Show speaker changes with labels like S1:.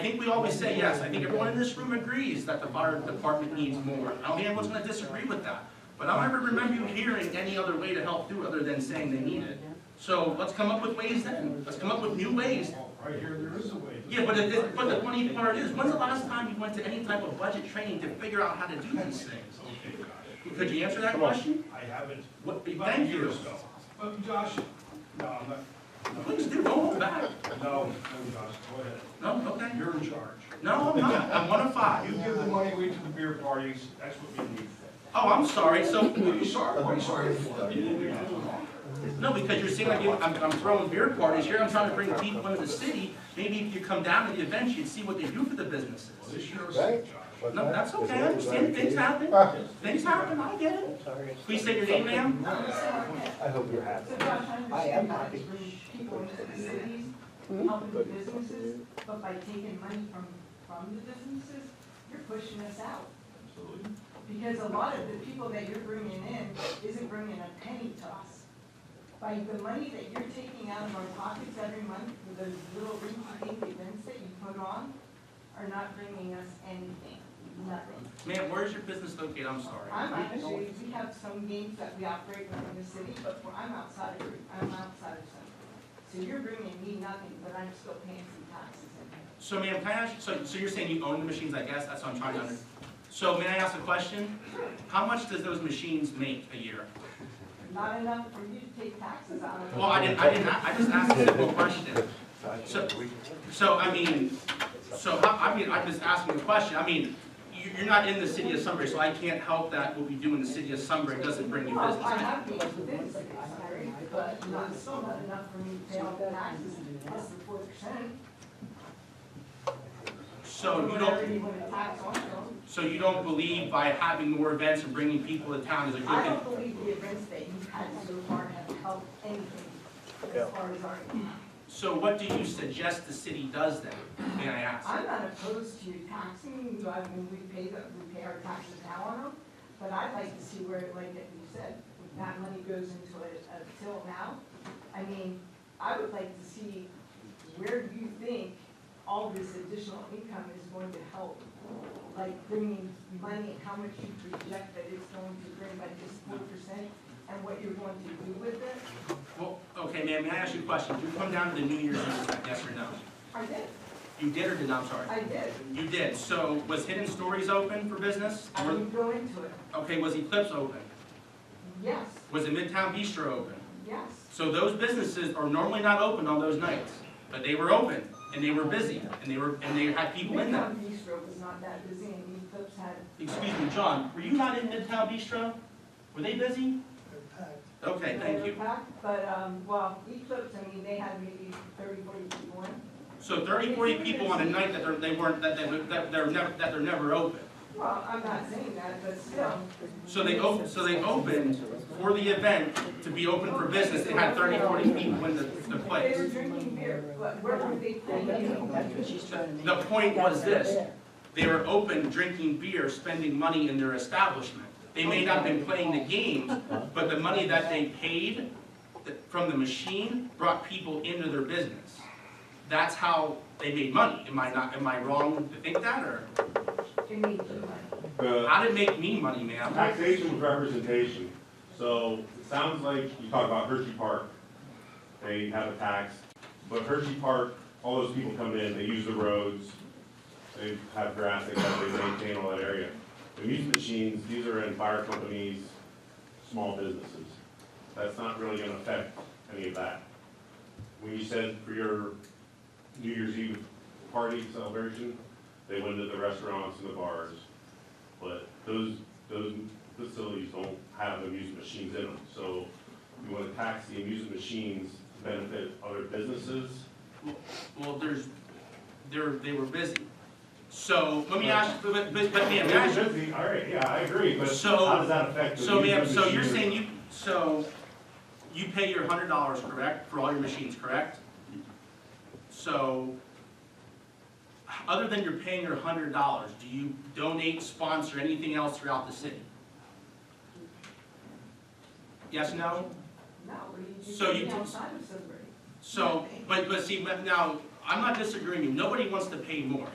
S1: I think we always say yes, I think everyone in this room agrees that the fire department needs more. I don't think anyone's gonna disagree with that, but I don't ever remember you hearing any other way to help do other than saying they need it. So let's come up with ways then, let's come up with new ways.
S2: Right here, there is a way.
S1: Yeah, but it, it- but the funny part is, when's the last time you went to any type of budget training to figure out how to do these things?
S2: Okay, Josh,
S1: Could you answer that question?
S2: I haven't,
S1: What,
S2: about
S1: thank you.
S2: years ago. But Josh, no, I'm not,
S1: Please do, don't hold back.
S2: no, no, Josh, go ahead.
S1: No, okay.
S2: You're in charge.
S1: No, I'm not, I'm one of
S2: You
S1: five.
S2: give the money away to the beer parties, that's what we need.
S1: Oh, I'm sorry, so
S2: What are you sorry, what are you sorry for? You didn't do nothing wrong.
S1: No, because you're seeing, like, you- I'm, I'm throwing beer parties here, I'm trying to bring people into the city. Maybe if you come down to the events, you'd see what they do for the businesses.
S2: Well, This year was
S3: Right?
S2: sick, Josh.
S3: What's
S1: No,
S3: that?
S1: that's
S3: Is
S1: okay, I
S3: that
S1: understand, things
S3: right?
S1: happen, things happen, I get it. Please state your name, ma'am.
S3: I hope you're happy.
S4: So Josh,
S3: I
S4: I
S3: am
S4: understand that
S3: happy.
S4: it's bringing people into the cities, helping the businesses, but by taking money from, from the businesses, you're pushing us out. Because a lot of the people that you're bringing in isn't bringing a penny to us. By the money that you're taking out of our pockets every month for those little rinky-dink events that you put on are not bringing us anything, nothing.
S1: Ma'am, where is your business located? I'm sorry.
S4: I'm actually, we have some games that we operate within the city, but we're- I'm outside of, I'm outside of something. So you're bringing me nothing, but I'm still paying some taxes in here.
S1: So ma'am, can I ask, so, so you're saying you own the machines, I guess, that's what I'm trying to under. So may I ask a question? How much does those machines make a year?
S4: Not enough for you to take taxes out of.
S1: Well, I didn't, I didn't, I just asked a simple question. So, so I mean, so I, I mean, I'm just asking a question, I mean, you, you're not in the city of Sunbury, so I can't help that what we do in the city of Sunbury doesn't bring you
S4: Well, I
S1: business.
S4: have games within the city, sorry, but not, still not enough for me to pay all the taxes plus the four percent.
S1: So you
S4: Whatever you
S1: don't,
S4: want to tax on them.
S1: so you don't believe by having more events and bringing people to town is a good
S4: I
S1: thing?
S4: don't believe the events that you've had so far have helped anything
S3: Yeah.
S4: as far as our
S1: So what do you suggest the city does then, may I ask?
S4: I'm not opposed to taxing, I mean, we pay the, we pay our taxes now on them, but I'd like to see where, like that you said, that money goes into it until now. I mean, I would like to see where you think all this additional income is going to help, like bringing money, how much you project that it's going to bring by just four percent, and what you're going to do with it.
S1: Well, okay, ma'am, may I ask you a question? Did you come down to the New Year's Eve, yes or no?
S4: I did,
S1: You did or did not, I'm sorry?
S4: I did,
S1: You did, so was Hidden Stories open for business?
S4: I
S1: Were-
S4: didn't go into it,
S1: Okay, was Eclipse open?
S4: yes,
S1: Was it Midtown Bistro open?
S4: yes.
S1: So those businesses are normally not open on those nights, but they were open, and they were busy, and they were, and they had people in them.
S4: Midtown Bistro was not that busy and Eclipse had,
S1: Excuse me, John, were you not in Midtown Bistro? Were they busy? Okay, thank
S4: they
S1: you.
S4: were packed, but, um, well, Eclipse, I mean, they had maybe thirty, forty people in.
S1: So 30, 40 people on a night that they're, they weren't, that they, were- that they're never, that they're never open.
S4: Well, I'm not saying that, but still.
S1: So they op, so they opened for the event to be open for business, they had 30, 40 people in the, the
S4: They were
S1: place.
S4: drinking beer, but where were they playing?
S1: The point was this, they were open, drinking beer, spending money in their establishment. They may not have been playing the games, but the money that they paid th- from the machine brought people into their business. That's how they made money, am I not, am I wrong to think that, or?
S4: They made you money.
S5: The
S1: How did it make me money, ma'am?
S5: taxation with representation, so it sounds like you talk about Hershey Park, they have a tax, but Hershey Park, all those people come in, they use the roads, they have grass, they cut, they maintain all that area. The music machines, these are in fire companies, small businesses, that's not really gonna affect any of that. When you said for your New Year's Eve party celebration, they went to the restaurants and the bars, but those, those facilities don't have amusement machines in them. So you want to tax the amusement machines to benefit other businesses?
S1: Well, there's, they're, they were busy. So, let me ask, but, but, but ma'am, may I ask you-
S5: Should be, all right, yeah, I agree, but
S1: So-
S5: how does that affect the
S1: so ma'am,
S5: amusement
S1: so you're
S5: machine?
S1: saying you, so you pay your hundred dollars, correct, for all your machines, correct? So, other than you're paying your hundred dollars, do you donate, sponsor anything else throughout the city? Yes, no?
S4: No, what are you
S1: So you
S4: doing
S1: took-
S4: outside of Sunbury?
S1: So, but, but see, but now, I'm not disagreeing, nobody wants to pay more.